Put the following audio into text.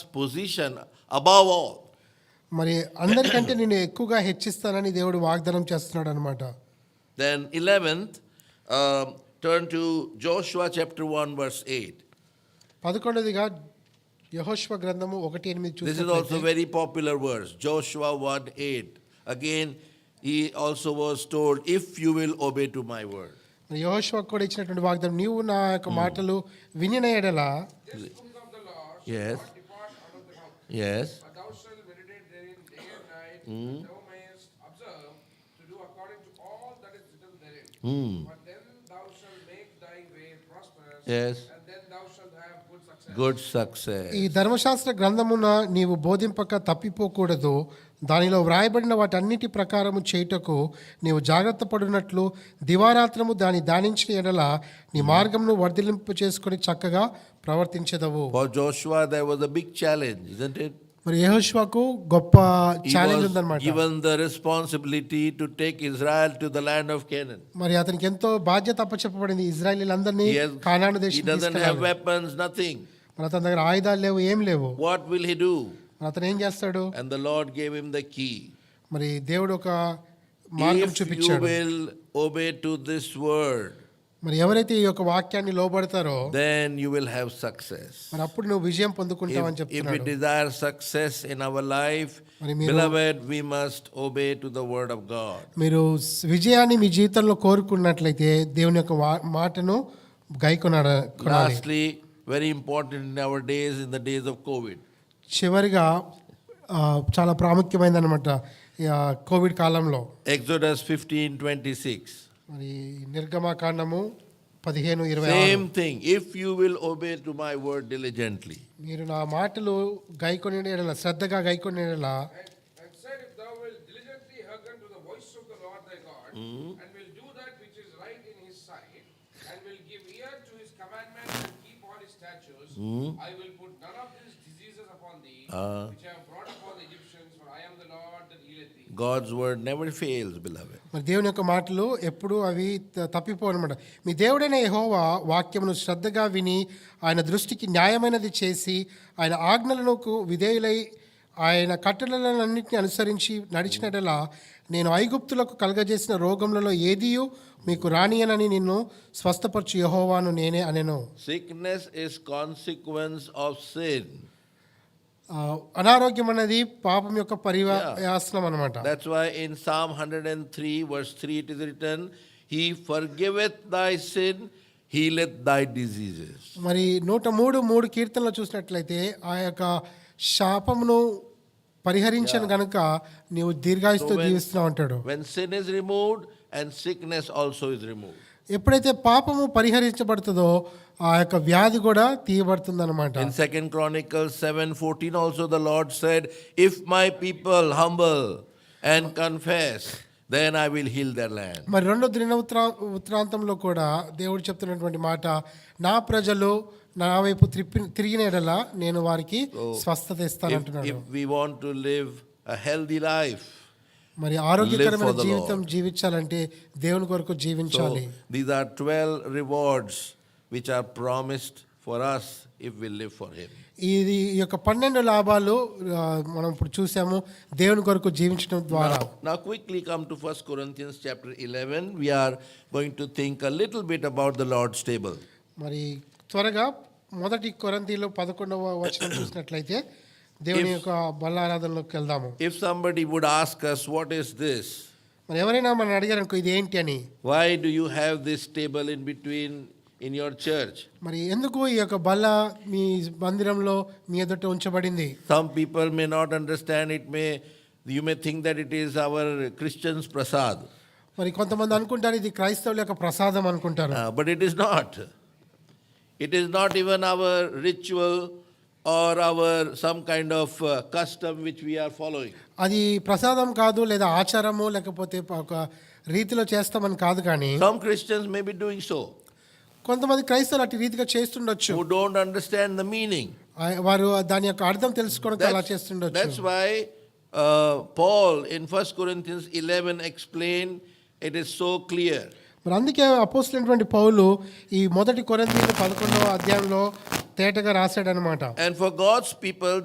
position above all. మరి అందరికంటే నేను ఎక్కువగా హెచ్చిస్తానని దేవుడు వాగ్దానం చేస్తున్నాడు అనమాట Then 11th, um, turn to Joshua chapter 1, verse 8. పదకొండదిగా యహోష్వ గ్రంథము ఒకటి ఎనిమిది This is also చూసినట్లయితే very popular verse, Joshua 1 8. Again, he also was told, If you will obey to my word. యహోష్వకు కూడా ఇచ్చినటువంటి వాగ్దానం నీవు నా యొక్క మాటలు వినిన ఎడల Books of the law Yes. shall not depart out of the mouth, Yes. but thou shalt meditate therein day and night, that thou mayest observe to do according to all that is written therein. But then thou shalt make thy way prosperous, Yes. and then thou shalt have good success. Good success. ఈ ధర్మశాస్త్ర గ్రంథమున నీవు బోధింపక తప్పిపోకూడదు దానిలో వ్రాయబడిన వాటన్నిటి ప్రకారము చేయుటకు నీవు జాగ్రత్త పడినట్లు దివారాత్రము దాని ధ్యానించిన ఎడల నీ Hmm. మార్గమును వర్ధిలింపు చేసుకొని చక్కగా ప్రవర్తించదవు For Joshua, there was a big challenge, isn't it? మరి యహోష్వకు గొప్ప He ఛాలెంజ్ was ఉందన్నమాట given the responsibility to take Israel to the land of Canaan. మరి అతనికి ఎంతో బాధ్యత అప్పచెప్పబడింది ఇజ్రాయలీలందరినీ He, has- కానాను he దేశం doesn't have weapons, nothing. మరి అతని దగ్గర ఆయుధాలు లేవు ఏం లేవు What will he do? మరి అతను ఏం చేస్తాడు And the Lord gave him the key. మరి దేవుడు ఒక మార్గం if you చూపించాడు will obey to this word, మరి ఎవరైతే ఈ యొక్క వాక్యాన్ని లోబడతారో then you will have success. మరి అప్పుడు నువ్వు విజయం పొందుకుంటావని If, if we చెప్తున్నాడు desire success in our life, మరి మీరు- beloved, we must obey to the word of God. మీరు స్- విజయాన్ని మీ జీవితంలో కోరుకున్నట్లయితే దేవుని యొక్క వా- మాటను గైకొనాడ కొనాలి. Lastly, very important in our days, in the days of COVID. చివరిగా ఆ, చాలా ప్రాముఖ్యమైనది అనమాట కోవిడ్ కాలంలో Exodus 15 26. మరి నిర్గమకాండము పదిహేను ఇరవై ఆరు. Same thing. If you will obey to my word diligently. మీరు నా మాటలు గైకొని ఎడల శ్రద్ధగా గైకొని ఎడల And, and said, If thou wilt diligently hearken to the voice of the Lord thy God, and will do that which is right in his sight, and will give ear to his commandments and keep all his statutes, I will put none of these diseases upon thee, which I have brought upon the Egyptians, for I am the Lord that healeth thee. God's word never fails, beloved. మరి దేవుని యొక్క మాటలు ఎప్పుడూ అవి త- తప్పిపోవు అనమాట మీ దేవుడైన యెహోవా వాక్యమును శ్రద్ధగా విని ఆయన దృష్టికి న్యాయమైనది చేసి ఆయన ఆజ్ఞలను విధేయులై ఆయన కట్టడలన్నింటినీ అనుసరించి నడిచినట్లా నేను ఐగుప్తులకు కలగజేసిన రోగములలో ఏదియూ మీకు రానియనని నిన్ను స్వస్థపరచు యెహోవాను నేనే అనెను Sickness is consequence of sin. ఆ, అనారోగ్యం అనేది పాపం యొక్క పరివాసనం అనమాట That's why in Psalm 103, verse 3, it is written, He forgiveth thy sin, healeth thy diseases. మరి నూట మూడు మూడు కీర్తనలు చూసినట్లయితే ఆ యొక్క శాపమును పరిహరించను గనుక నీవు దీర్ఘాయుస్తో జీవిస్తున్నావు అంటాడు When sin is removed, and sickness also is removed. ఎప్పుడైతే పాపము పరిహరించబడుతుందో ఆ యొక్క వ్యాధి కూడా తీయబడుతుంది అనమాట In Second Chronicles 7 14, also the Lord said, If my people humble and confess, then I will heal their land. మరి రెండో దిన ఉత్తరా ఉత్తరాంతంలో కూడా దేవుడు చెప్తున్నటువంటి మాట నా ప్రజలు నా వైపు త్రిప్పి తిరిగిన ఎడల నేను వారికి స్వస్థత ఇస్తాను If, అంటున్నాడు if we want to live a healthy life, మరి Live ఆరోగ్యకరమైన for the జీవితం జీవించాలంటే దేవుని కొరకు So జీవించాలి these are 12 rewards which are promised for us if we live for Him. ఇది ఈ యొక్క పన్నెండు లాభాలు ఆ, మనం ఇప్పుడు చూసాము దేవుని కొరకు జీవించడం ద్వారా Now quickly come to 1 Corinthians chapter 11. We are going to think a little bit about the Lord's table. మరి త్వరగా మొదటి కొరంతిలో పదకొండవ వచనం చూసినట్లయితే దేవుని యొక్క బల ఆరాధనలోకి వెళ్దాము If somebody would ask us, what is this? మరి ఎవరైనా మనం అడిగారు అనుకో ఇది ఏంటి అని Why do you have this table in between in your church? మరి ఎందుకు ఈ యొక్క బల్ల మీ మందిరంలో మీ ఎదుట ఉంచబడింది Some people may not understand it may you may think that it is our Christians prasad. మరి కొంతమంది అనుకుంటారు ఇది క్రైస్తవుల యొక్క ప్రసాదం అనుకుంటారు Uh, but it is not. It is not even our ritual or our some kind of uh, custom which we are following. అది ప్రసాదం కాదు లేదా ఆచారము లేకపోతే ఒక రీతిలో చేస్తామని కాదు కానీ Some Christians may be doing so కొంతమంది క్రైస్తవులు అటు రీతిగా చేస్తుండొచ్చు who don't understand the meaning. ఆ- వారు దాని యొక్క అర్థం తెలుసుకోవడానికి అలా That's, that's చేస్తుండొచ్చు why uh, Paul in 1 Corinthians 11 explained it is so clear. మరి అందుకే అపోస్తులైనటువంటి పౌలు ఈ మొదటి కొరంతీయులు పదకొండవ అధ్యాయంలో తేటగా రాశాడనమాట And for God's people,